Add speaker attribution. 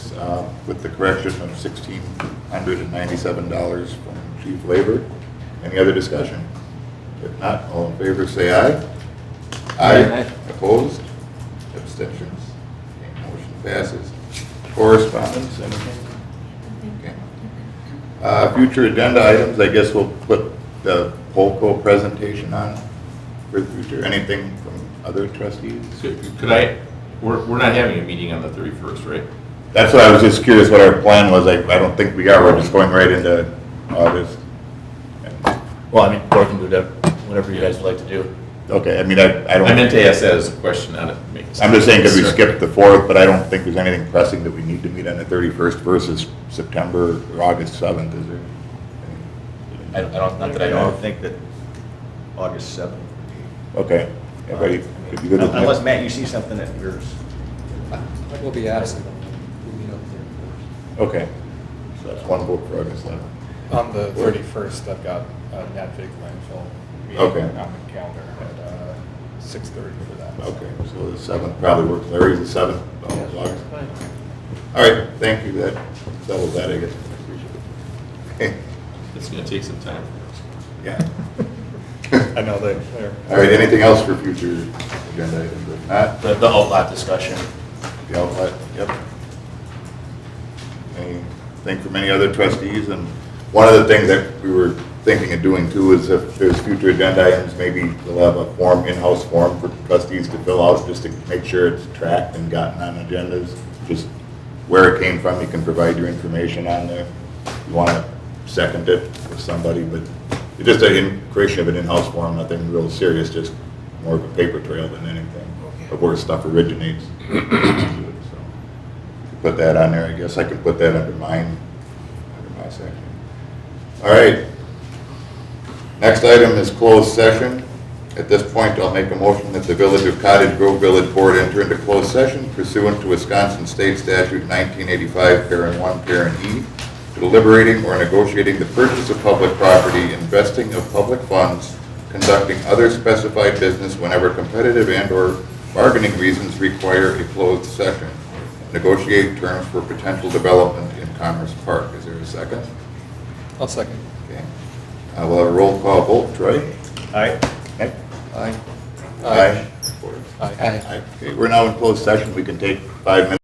Speaker 1: is uh, with the correction of $1,697 from chief labor. Any other discussion? If not, all in favor, say aye.
Speaker 2: Aye.
Speaker 1: Opposed? Abstentions? Okay, Motion passes. Correspondence, anything? Okay. Uh, Future agenda items, I guess we'll put the Polco presentation on for future, anything from other trustees?
Speaker 3: So, Could I, we're, we're not having a meeting on the 31st, right?
Speaker 1: That's what I was just curious what our plan was. I, I don't think we are. We're just going right into August.
Speaker 2: Well, I mean, or can do that, whatever you guys would like to do.
Speaker 1: Okay, I mean, I, I don't.
Speaker 3: I meant to ask that as a question, not to make. a-
Speaker 1: I'm just saying because we skipped the fourth, but I don't think there's anything pressing that we need to meet on the thirty-first versus September or August seventh, is
Speaker 2: I
Speaker 1: there?
Speaker 2: don't, I don't- not that I
Speaker 4: I
Speaker 2: know
Speaker 4: don't
Speaker 2: of.
Speaker 4: think that August 7th.
Speaker 1: Okay, everybody, if you go to the
Speaker 4: Unless,
Speaker 1: next-
Speaker 4: Matt, you see something that yours,
Speaker 5: I will be absent. We'll meet up there.
Speaker 1: okay. So that's one vote for August seventh.
Speaker 5: On the thirty-first, I've got a NADVIG landfill
Speaker 1: Okay.
Speaker 5: meeting on the calendar at uh, six thirty for that.
Speaker 1: Okay, so the seventh probably works. Larry's the seventh, of August. All right, thank you. That settles that, I guess. Appreciate it.
Speaker 3: It's gonna take some time.
Speaker 1: Yeah.
Speaker 5: I know they, they're.
Speaker 1: All right, anything else for future agenda items? If not,
Speaker 2: The, the outlot discussion.
Speaker 1: the outlet, yep. Anything from any other trustees? And one of the things that we were thinking of doing too is if there's future agenda items, maybe we'll have a form, in-house form for trustees to fill out just to make sure it's tracked and gotten on agendas. Just where it came from, you can provide your information on there. You want to second it with somebody, but it's just a in- creation of an in-house form, nothing real serious, just more of a paper trail than anything of where stuff originates. So put that on there, I guess I could put that under mine, under my section. All right. Next item is closed session. At this point, I'll make a motion that the Village of Cottage Grove Village Board enter into closed session pursuant to Wisconsin State Statute 1985, parent 1, parent E, deliberating or negotiating the purchase of public property, investing of public funds, conducting other specified business whenever competitive and/or bargaining reasons require a closed session, negotiate terms for potential development in Commerce Park. Is there a second?
Speaker 5: I'll second.
Speaker 1: Okay. I will have a roll call vote. Troy?
Speaker 4: all right?
Speaker 1: Aye. Aye.
Speaker 5: Aye.
Speaker 1: Aye. Okay, we're now in closed session. We can take five minutes.